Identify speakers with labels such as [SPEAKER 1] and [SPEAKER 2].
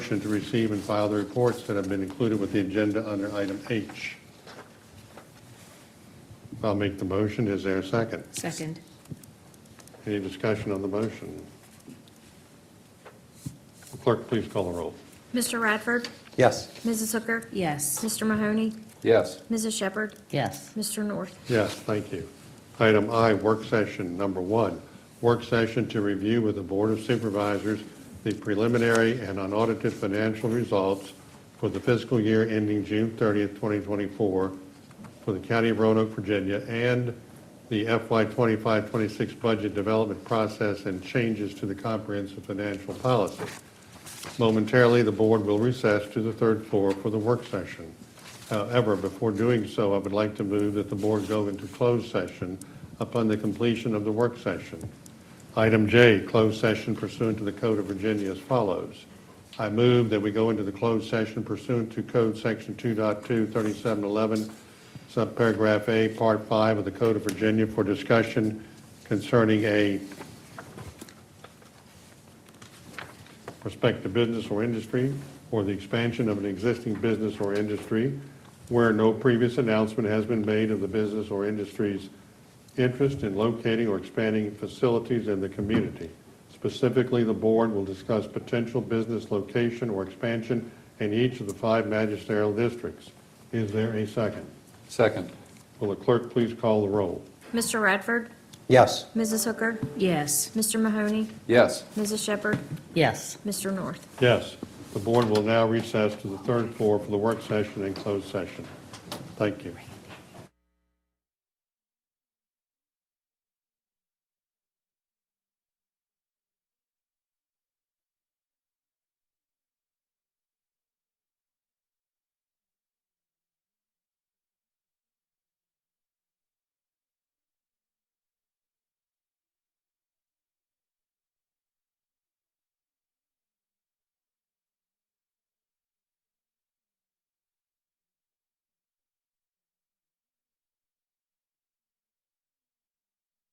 [SPEAKER 1] motion to receive and file the reports that have been included with the agenda under item H. I'll make the motion. Is there a second?
[SPEAKER 2] Second.
[SPEAKER 1] Any discussion on the motion? Clerk, please call the roll.
[SPEAKER 3] Mr. Radford,
[SPEAKER 4] Yes.
[SPEAKER 3] Mrs. Hooker,
[SPEAKER 2] Yes.
[SPEAKER 3] Mr. Mahoney,
[SPEAKER 4] Yes.
[SPEAKER 3] Mrs. Shepherd,
[SPEAKER 5] yes,
[SPEAKER 3] Mr. North.
[SPEAKER 1] Yes, thank you. Item I, work session number one, work session to review with the Board of Supervisors the preliminary and unaudited financial results for the fiscal year ending June 30th, 2024 for the County of Roanoke, Virginia, and the FY 25-26 budget development process and changes to the comprehensive financial policy. Momentarily, the board will recess to the third floor for the work session. However, before doing so, I would like to move that the board go into closed session upon the completion of the work session. Item J, closed session pursuant to the Code of Virginia as follows. I move that we go into the closed session pursuant to Code Section 2.23711, subparagraph A, Part 5 of the Code of Virginia for discussion concerning a respect to business or industry, or the expansion of an existing business or industry where no previous announcement has been made of the business or industry's interest in locating or expanding facilities in the community. Specifically, the board will discuss potential business location or expansion in each of the five magisterial districts. Is there a second?
[SPEAKER 4] Second.
[SPEAKER 1] Will the clerk please call the roll?
[SPEAKER 3] Mr. Radford,
[SPEAKER 4] Yes.
[SPEAKER 3] Mrs. Hooker,
[SPEAKER 2] Yes.
[SPEAKER 3] Mr. Mahoney,
[SPEAKER 4] Yes.
[SPEAKER 3] Mrs. Shepherd,
[SPEAKER 5] yes.
[SPEAKER 3] Mr. North.
[SPEAKER 1] Yes, the board will now recess to the third floor for the work session and closed session. Thank you.